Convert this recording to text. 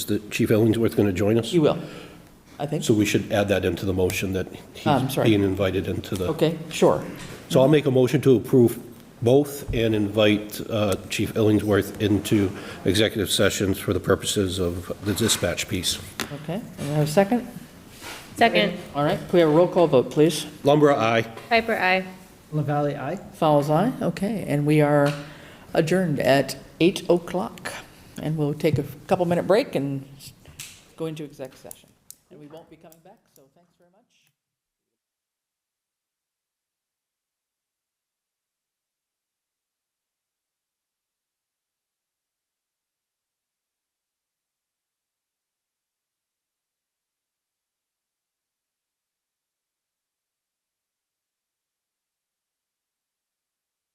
Is the Chief Ellingsworth going to join us? You will, I think. So we should add that into the motion that Oh, I'm he's sorry. being invited into the. Okay, sure. So I'll make a motion to approve both and invite uh, Chief Ellingsworth into executive sessions for the purposes of the dispatch piece. Okay, and we have a second? Second, All right, can we have a roll call vote, please? Lumbra, aye. Piper, aye. LaValle, aye? Fowles, aye. Okay, and we are adjourned at 8 o'clock. And we'll take a couple-minute break and go into exec session. And we won't be coming back, so thanks very much.